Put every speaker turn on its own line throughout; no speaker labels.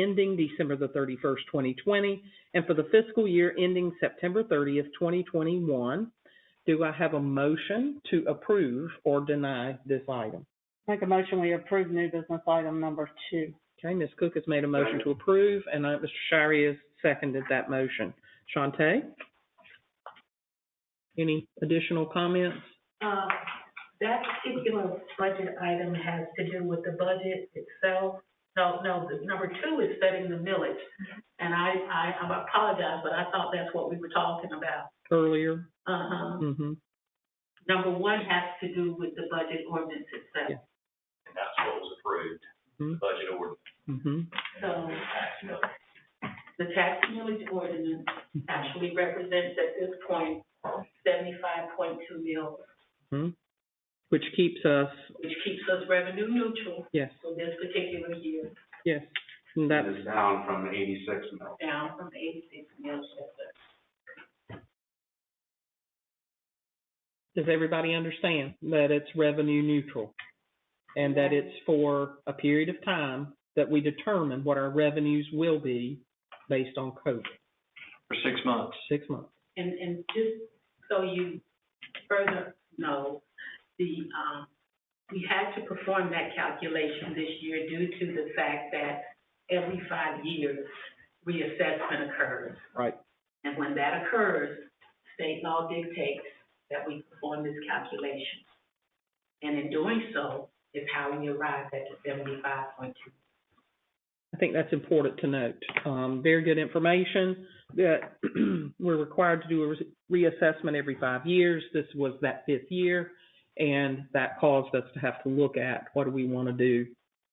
ending December the thirty-first, twenty twenty, and for the fiscal year ending September thirtieth, twenty twenty-one. Do I have a motion to approve or deny this item?
Make a motion, we approve new business item number two.
Okay, Ms. Cook has made a motion to approve, and uh, Mr. Shirey has seconded that motion. Shante? Any additional comments?
Uh, That particular budget item has to do with the budget itself. No, no, the number two is setting the millage. And I, I I apologize, but I thought that's what we were talking about.
Earlier?
Uh-huh.
Mm-hmm.
Number one has to do with the budget ordinance itself.
and that's what was approved, the
Mhm.
budget ordinance.
Mm-hmm.
So the tax millage ordinance actually represents at this point seventy-five point two mil,
Which keeps us,
which keeps us revenue neutral
yes,
for this particular year.
yes, and that's,
It is down from eighty-six mil.
down from eighty-six mil shifted.
does everybody understand that it's revenue neutral? And that it's for a period of time that we determine what our revenues will be based on COVID,
For six months.
six months.
And, and just so you further know, the, um, we had to perform that calculation this year due to the fact that every five years, reassessment occurs.
Right.
And when that occurs, state law dictates that we perform this calculation. And in doing so, is how we arrived at the seventy-five point two
I think that's important to note. Um, very good information that we're required to do a re- reassessment every five years. This was that fifth year, and that caused us to have to look at what do we want to do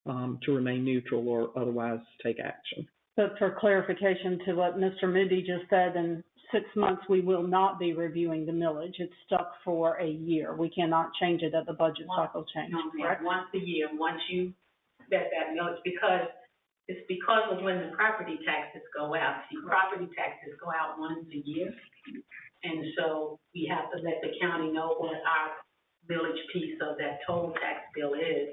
um, to remain neutral or otherwise take action.
But for clarification to what Mr. Moody just said, in six months, we will not be reviewing the millage. It's stuck for a year. We cannot change it at the budget cycle change,
No, ma'am,
correct?
once a year, once you set that millage, because it's because of when the property taxes go out. See, property taxes go out once a year. And so we have to let the county know what our village piece of that total tax bill is,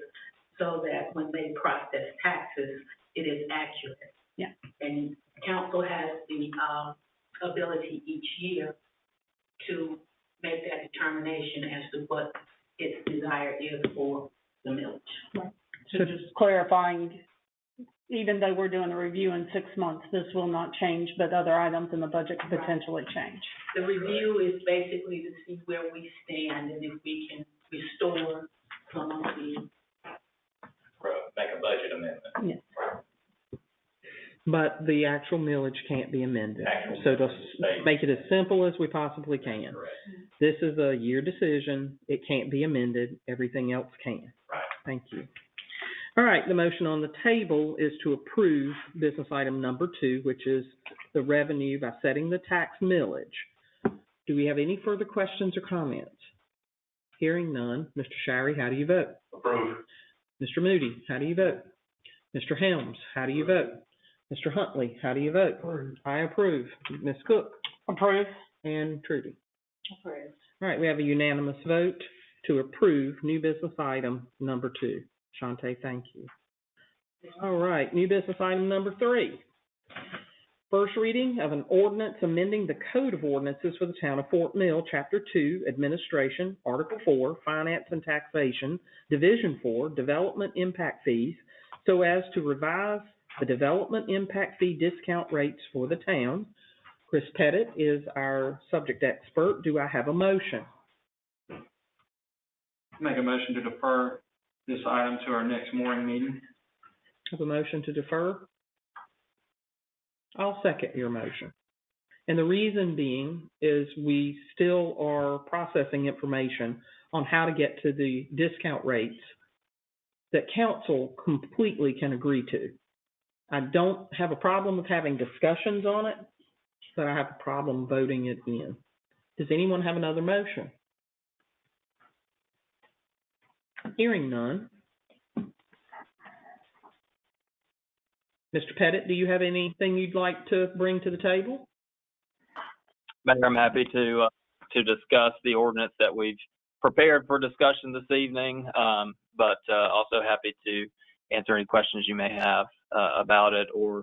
so that when they process taxes, it is accurate.
Yeah.
And council has the, um, ability each year to make that determination as to what its desire is for the millage.
So just clarifying, even though we're doing a review in six months, this will not change, but other items in the budget could potentially change.
The review is basically to see where we stand and if we can restore some of the,
For, a- make a budget amendment.
But the actual millage can't be amended.
Actual
So to
millage is stayed.
s- make it as simple as we possibly can.
Correct.
This is a year decision. It can't be amended. Everything else can.
Right.
Thank you. All right, the motion on the table is to approve business item number two, which is the revenue by setting the tax millage. Do we have any further questions or comments? Hearing none, Mr. Shirey, how do you vote?
Approved.
Mr. Moody, how do you vote? Mr. Helms, how do you vote? Mr. Huntley, how do you vote? I approve. Ms. Cook
Approved?
and Trudy. All right, we have a unanimous vote to approve new business item number two. Shante, thank you. All right, new business item number three. First reading of an ordinance amending the Code of Ordinances for the Town of Fort Mill, Chapter Two, Administration, Article Four, Finance and Taxation, Division Four, Development Impact Fees, so as to revise the development impact fee discount rates for the town. Chris Pettit is our subject expert. Do I have a motion?
Make a motion to defer this item to our next morning meeting.
Have a motion to defer? I'll second your motion. And the reason being is we still are processing information on how to get to the discount rates that council completely can agree to. I don't have a problem with having discussions on it, but I have a problem voting it in. Does anyone have another motion? Hearing none. Mr. Pettit, do you have anything you'd like to bring to the table?
Mayor, I'm happy to, uh, to discuss the ordinance that we've prepared for discussion this evening, um, but, uh, also happy to answer any questions you may have, uh, about it or